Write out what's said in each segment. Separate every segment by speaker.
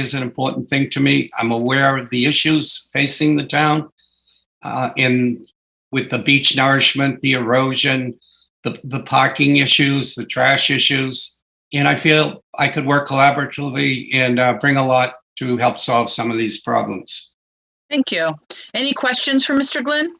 Speaker 1: is an important thing to me. I'm aware of the issues facing the town uh, in with the beach nourishment, the erosion, the, the parking issues, the trash issues. And I feel I could work collaboratively and uh, bring a lot to help solve some of these problems.
Speaker 2: Thank you. Any questions for Mr. Glenn?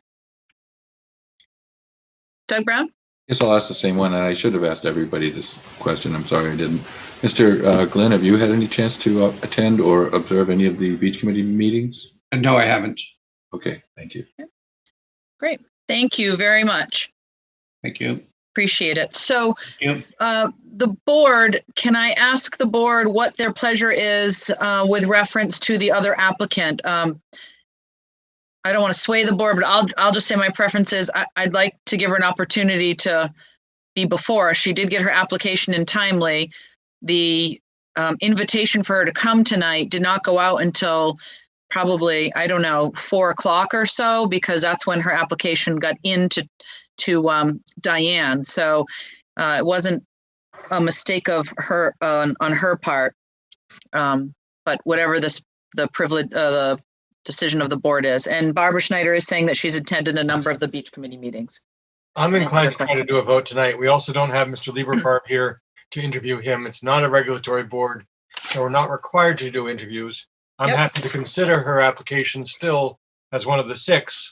Speaker 2: Doug Brown?
Speaker 3: Guess I'll ask the same one, and I should have asked everybody this question. I'm sorry I didn't. Mr. uh, Glenn, have you had any chance to uh, attend or observe any of the beach committee meetings?
Speaker 1: And no, I haven't.
Speaker 3: Okay, thank you.
Speaker 2: Thank you very much.
Speaker 1: Thank you.
Speaker 2: Appreciate it. So
Speaker 1: Yep.
Speaker 2: uh, the board, can I ask the board what their pleasure is uh, with reference to the other applicant? Um, I don't want to sway the board, but I'll, I'll just say my preference is I, I'd like to give her an opportunity to be before. She did get her application in timely. The um, invitation for her to come tonight did not go out until probably, I don't know, four o'clock or so, because that's when her application got into to um, Diane. So uh, it wasn't a mistake of her on, on her part. Um, but whatever this the privilege uh, the decision of the board is, and Barbara Schneider is saying that she's attended a number of the beach committee meetings.
Speaker 4: I'm
Speaker 2: Answer
Speaker 4: inclined
Speaker 2: the
Speaker 4: to try to do a vote tonight. We also don't have Mr. Lieberfarb here to interview him. It's not a regulatory board, so we're not required to do interviews. I'm
Speaker 2: Yep.
Speaker 4: happy to consider her application still as one of the six,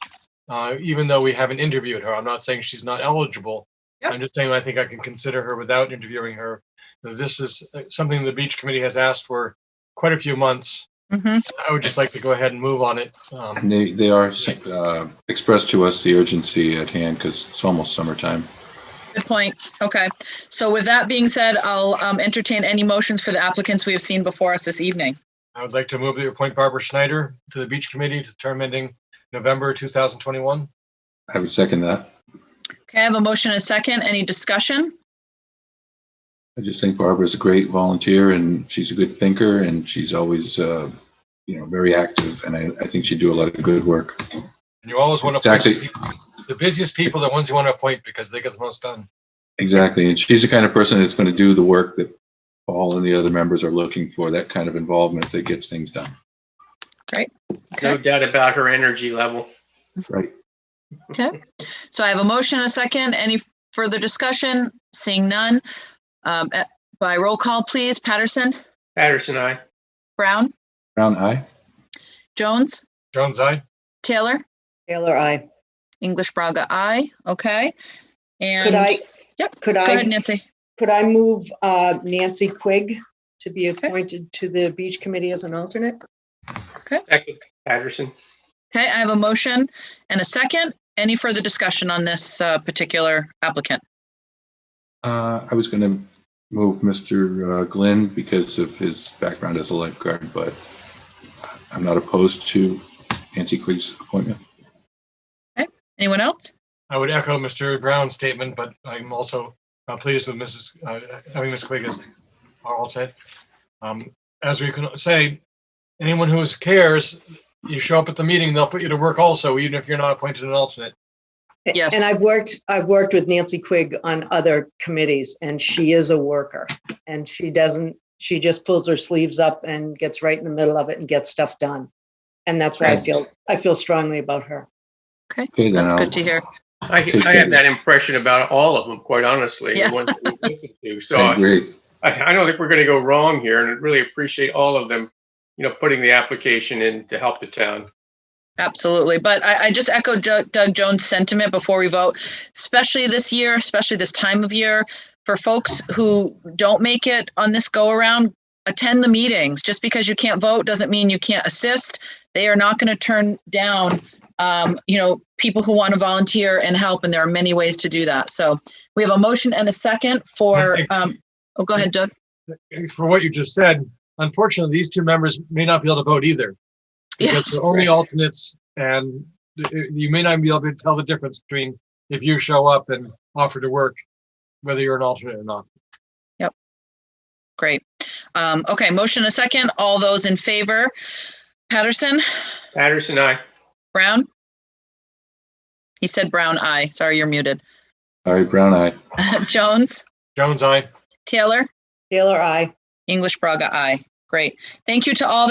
Speaker 4: uh, even though we haven't interviewed her. I'm not saying she's not eligible.
Speaker 2: Yep.
Speaker 4: I'm just saying I think I can consider her without interviewing her. This is uh, something the beach committee has asked for quite a few months.
Speaker 2: Mhm.
Speaker 4: I would just like to go ahead and move on it. Um,
Speaker 3: And they, they are uh, expressed to us the urgency at hand because it's almost summertime.
Speaker 2: Good point. Okay. So with that being said, I'll um, entertain any motions for the applicants we have seen before us this evening.
Speaker 4: I would like to move that you appoint Barbara Schneider to the Beach Committee to term ending November 2021.
Speaker 3: I would second that.
Speaker 2: Okay, I have a motion and a second. Any discussion?
Speaker 3: I just think Barbara's a great volunteer and she's a good thinker and she's always, uh, you know, very active. And I, I think she'd do a lot of good work.
Speaker 4: And you always want
Speaker 3: It's
Speaker 4: to appoint the
Speaker 3: actually,
Speaker 4: people- the busiest people, the ones you want to appoint because they get the most done.
Speaker 3: Exactly. And she's the kind of person that's going to do the work that Paul and the other members are looking for, that kind of involvement that gets things done.
Speaker 2: Okay.
Speaker 5: No doubt about her energy level.
Speaker 3: Right.
Speaker 2: So I have a motion and a second. Any further discussion? Seeing none. Um, eh, By roll call, please. Patterson,
Speaker 5: Patterson, I.
Speaker 2: Brown,
Speaker 3: Brown, eye?
Speaker 2: Jones,
Speaker 4: Jones, I,
Speaker 2: Taylor,
Speaker 6: Taylor, I.
Speaker 2: English Braga, aye. Okay. And
Speaker 6: Could I?
Speaker 2: go Yep,
Speaker 6: Could
Speaker 2: ahead,
Speaker 6: I,
Speaker 2: Nancy.
Speaker 6: could I move uh, Nancy Quigg to be
Speaker 2: Okay.
Speaker 6: appointed to the Beach Committee as an alternate?
Speaker 5: Second, Patterson.
Speaker 2: Okay, I have a motion and a second. Any further discussion on this uh, particular applicant?
Speaker 3: Uh, I was going to move Mr. uh, Glenn because of his background as a lifeguard, but I'm not opposed to Nancy Quigg's appointment.
Speaker 2: Anyone else?
Speaker 4: I would echo Mr. Brown's statement, but I'm also uh, pleased with Mrs., uh, having Ms. Quigg as our alternate. Um, As we can say, anyone who is- cares, you show up at the meeting, they'll put you to work also, even if you're not appointed an alternate.
Speaker 6: A-
Speaker 2: Yes.
Speaker 6: And I've worked, I've worked with Nancy Quigg on other committees and she is a worker. And she doesn't, she just pulls her sleeves up and gets right in the middle of it and gets stuff done. And that's why I
Speaker 3: Right.
Speaker 6: feel, I feel strongly about her.
Speaker 3: Okay, then
Speaker 2: That's
Speaker 3: I'll-
Speaker 2: good to hear.
Speaker 5: I, I have that impression about all of them, quite honestly. the
Speaker 2: Yeah.
Speaker 5: ones that we listen to. So
Speaker 3: I
Speaker 5: I,
Speaker 3: agree.
Speaker 5: I don't think we're going to go wrong here, and I really appreciate all of them, you know, putting the application in to help the town.
Speaker 2: Absolutely. But I, I just echo Ju- Doug Jones' sentiment before we vote, especially this year, especially this time of year, for folks who don't make it on this go around, attend the meetings. Just because you can't vote doesn't mean you can't assist. They are not going to turn down, um, you know, people who want to volunteer and help. And there are many ways to do that. So we have a motion and a second
Speaker 4: I
Speaker 2: for,
Speaker 4: think-
Speaker 2: um, oh, go ahead, Doug.
Speaker 4: For what you just said, unfortunately, these two members may not be able to vote either. because
Speaker 2: Yes.
Speaker 4: they're only alternates and th- you may not be able to tell the difference between if you show up and offer to work, whether you're an alternate or not.
Speaker 2: Great. Um, okay. Motion and a second. All those in favor? Patterson?
Speaker 5: Patterson, I.
Speaker 2: Brown? He said brown eye. Sorry, you're muted.
Speaker 3: Sorry, Brown, eye.
Speaker 2: Jones,
Speaker 4: Jones, I,
Speaker 2: Taylor,
Speaker 6: Taylor, I.
Speaker 2: English Braga, aye. Great. Thank you to all